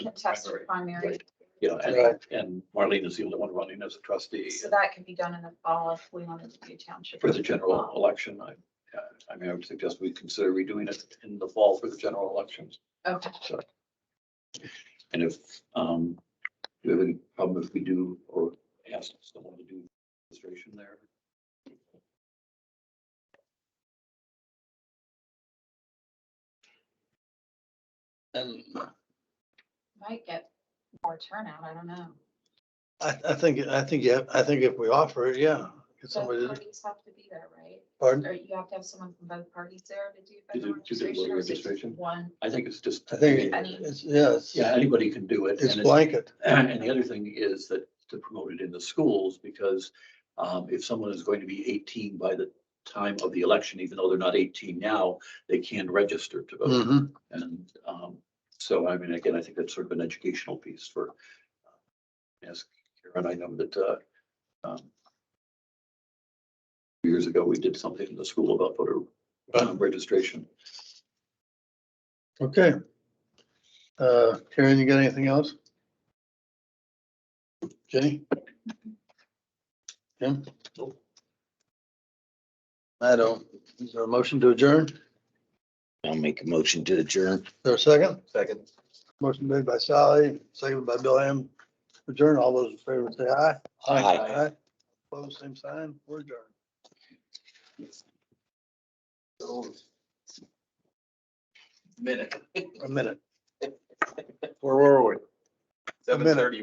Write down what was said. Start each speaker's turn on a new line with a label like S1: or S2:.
S1: contested
S2: Primary.
S1: primary,
S2: You know, and,
S3: Right.
S2: and Marlene is the only one running as a trustee
S1: so that could be done in the fall if we wanted to do township.
S2: for the general election. I, I mean, I would suggest we consider redoing it in the fall for the general elections.
S1: Okay,
S2: And if, um, do you have any problem if we do or ask someone to do administration there?
S3: And
S1: might get more turnout, I don't know.
S3: I, I think, I think, yeah, I think if we offer it, yeah, get
S1: So
S3: somebody, to-
S1: parties have to be there, right?
S3: pardon?
S1: Or you have to have someone from both parties there to do
S2: To
S1: voter
S2: do- to
S1: registration
S2: do voter
S1: or is it
S2: registration?
S1: one?
S2: I think it's just.
S3: I think
S1: Any-
S3: it's, yeah, it's,
S2: Yeah, anybody can do it.
S3: it's
S2: and
S3: blanket.
S2: And the other thing is that to promote it in the schools, because um, if someone is going to be eighteen by the time of the election, even though they're not eighteen now, they can register to vote.
S3: Mhm.
S2: And um, so, I mean, again, I think that's sort of an educational piece for uh, ask Karen, I know that uh, um, years ago, we did something in the school about voter um, registration.
S3: Okay. Uh, Karen, you got anything else? Jenny? Jim?
S2: Nope.
S3: I don't. Is there a motion to adjourn? Is
S4: I'll make a motion to adjourn.
S3: there a second?
S2: Second.
S3: Motion made by Sally, seconded by Bill Ham. Adjourn. All those in favor say aye.
S4: Aye.
S3: Aye. Opposed, same sign. We're adjourned.
S5: minute.
S3: A minute.
S5: Where were we?
S3: A minute.
S5: Seven thirty